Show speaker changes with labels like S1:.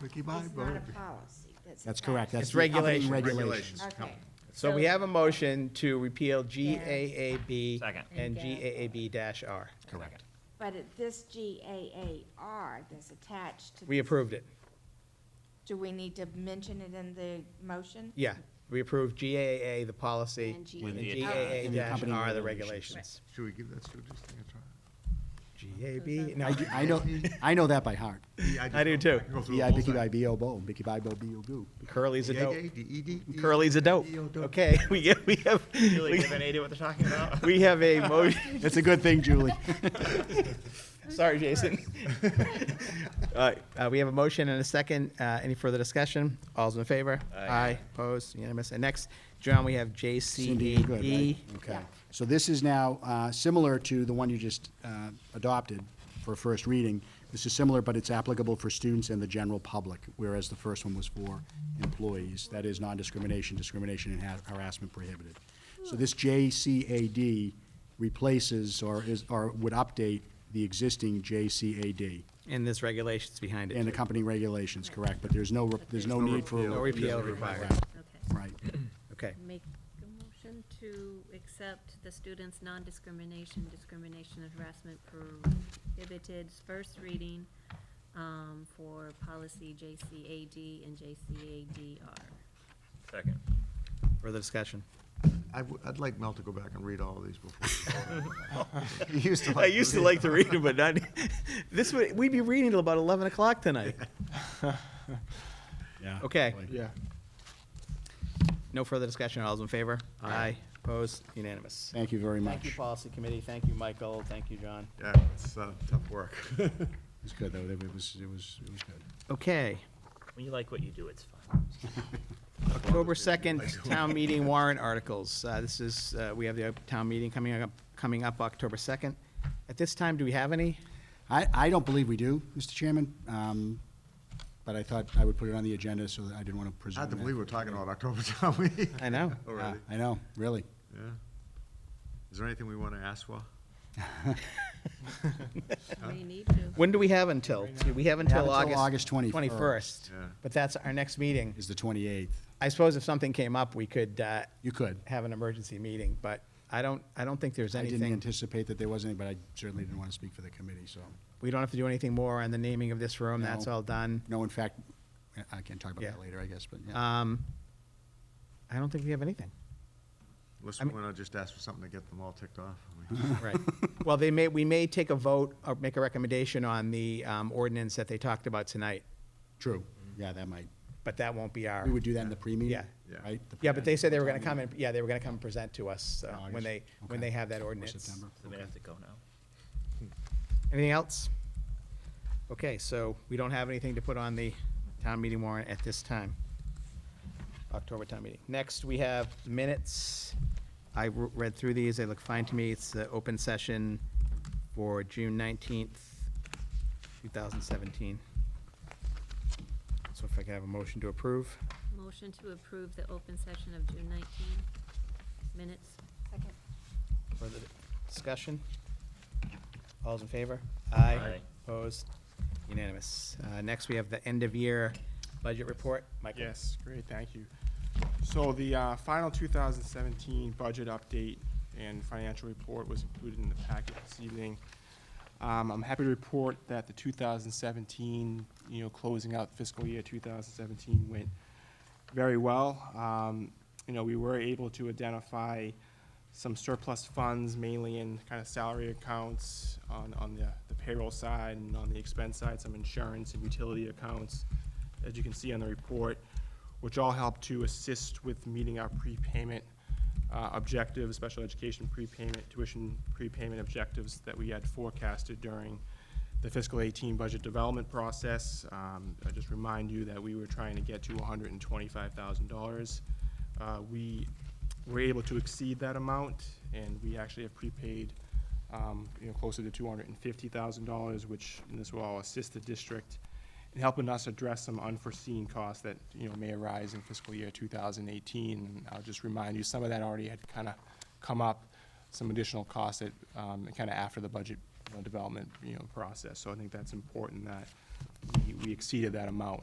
S1: Ricky Bobby.
S2: It's not a policy. a
S3: That's
S2: fact.
S3: correct. That's
S4: It's
S3: the governing
S4: regulations.
S3: regulations.
S2: Okay.
S4: So we have a motion to repeal GAAB.
S5: Second.
S4: And
S6: And
S4: GAAB-R.
S3: Correct.
S2: But it- this GAAR that's attached to.
S4: We approved it.
S2: Do we need to mention it in the motion?
S4: Yeah, we approved GAA, the policy,
S6: And
S4: and
S6: With
S5: the-
S3: and the accompanying
S4: GAA-R,
S3: regulations.
S4: the regulations.
S1: Should we give that Sue just a try?
S4: GAB, no,
S3: I do, I know, I know that by heart.
S4: I do too.
S1: can go through the
S3: B I
S1: whole
S3: B K
S1: thing.
S3: I B O Bo, Bicky Bibo B O Goo.
S4: Curly's a dope.
S1: Yay, yay, D-E-D, D-E-D,
S4: Curly's a dope.
S1: D-E-O-dope.
S4: Okay, we get, we have,
S5: Really
S4: we-
S5: give an idea what they're talking about?
S4: we have a motion,
S3: It's a good thing, Julie.
S4: sorry, Jason. All right, uh, we have a motion and a second. Uh, any further discussion? All's in favor?
S5: Aye.
S4: opposed, unanimous. And next, John, we have
S3: Cindy, you're good,
S4: JCDE.
S3: right? Okay. So this is now uh, similar to the one you just uh, adopted for first reading. This is similar, but it's applicable for students and the general public, whereas the first one was for employees. That is non-discrimination, discrimination, and ha- harassment prohibited. So this JCAD replaces or is, or would update the existing JCAD
S4: And there's regulations behind it.
S3: and
S4: too.
S3: accompanying regulations, correct? But there's no, re- there's no need for.
S4: No repeal required.
S6: Okay.
S3: Right.
S4: Okay.
S6: Make a motion to accept the students' non-discrimination, discrimination and harassment prohibited first reading um, for policy JCAD and JCADR.
S5: Second.
S4: Further discussion?
S1: I w- I'd like Mel to go back and read all of these before. He used to
S4: I used to like to read them, but not, e this would, we'd be reading till about 11 o'clock tonight.
S3: Yeah.
S4: Okay.
S1: Yeah.
S4: No further discussion, all's in favor? Aye. Opposed, unanimous.
S3: Thank you very much.
S4: Thank you, Policy Committee, thank you, Michael, thank you, John.
S1: Yeah, it's uh, tough work.
S3: It was good, though. It was, it was, it was good.
S4: Okay,
S5: When you like what you do, it's fun.
S4: October 2nd, Town Meeting warrant articles. Uh, This is, uh, we have the town meeting coming up, coming up October 2nd. At this time, do we have any?
S3: I, I don't believe we do, Mr. Chairman, um, but I thought I would put it on the agenda, so that I didn't want to presume
S1: Hard to
S3: that. Ah,
S1: believe we're talking about October town meeting.
S4: I know.
S1: Already,
S3: I know, really.
S1: yeah. Is there anything we want to ask for?
S6: We need to.
S4: When do we have until? We have until
S3: until August
S4: August.
S3: 21st.
S4: 21st.
S1: Yeah.
S4: But that's our next meeting.
S3: Is the 28th.
S4: I suppose if something came up, we could uh,
S3: You could.
S4: have an emergency meeting, but I don't, I don't think there's
S3: I didn't
S4: anything.
S3: anticipate that there was any, but I certainly didn't want to speak for the committee, so.
S4: We don't have to do anything more on the naming of this room. That's
S3: No.
S4: all done.
S3: No, in fact, I- I can talk about
S4: Yeah.
S3: that later, I guess, but yeah.
S4: Um, I don't think we have anything.
S1: Unless
S4: I
S1: we
S4: mean-
S1: want to just ask for something to get them all ticked off. I mean,
S4: Right. Um, Well, they may, we may take a vote or make a recommendation on the um, ordinance that they talked about tonight,
S3: True, yeah, that might,
S4: but that won't be our.
S3: we would do that in the pre-meeting,
S4: Yeah.
S1: Yeah.
S3: right? The
S4: Yeah, but they said they were going to
S3: pre-town
S4: come
S3: meeting
S4: and, yeah, they were going to come and present to us uh, when
S3: August.
S4: they, when
S3: Okay.
S4: they have that
S3: or
S4: ordinance.
S3: September.
S5: So we have to go now.
S4: Anything else? Okay, so we don't have anything to put on the town meeting warrant at this time. October town meeting. Next, we have minutes. I re- read through these, they look fine to me. It's the open session for June nineteenth, two thousand seventeen. So if I could have a motion to approve,
S6: Motion to approve the open session of June 19 minutes.
S2: Second.
S4: further discussion? All's in favor? Aye.
S5: Aye.
S4: Opposed? Unanimous. Uh, next, we have the end-of-year budget report. Michael?
S7: Yes, great, thank you. So the uh, final 2017 budget update and financial report was included in the packet this evening. Um, I'm happy to report that the 2017, you know, closing out fiscal year 2017 went very well. Um, You know, we were able to identify some surplus funds, mainly in kind of salary accounts on, on the the payroll side and on the expense side, some insurance and utility accounts, as you can see on the report, which all help to assist with meeting our prepayment uh, objectives, special education prepayment, tuition prepayment objectives that we had forecasted during the fiscal 18 budget development process. Um, I just remind you that we were trying to get to $125,000. Uh, We were able to exceed that amount, and we actually have prepaid, um, you know, closer to $250,000, which, and this will all assist the district in helping us address some unforeseen costs that, you know, may arise in fiscal year 2018. And I'll just remind you, some of that already had kind of come up, some additional costs that, um, kind of after the budget uh, you know, development, you know, process. So I think that's important that we- we exceeded that amount,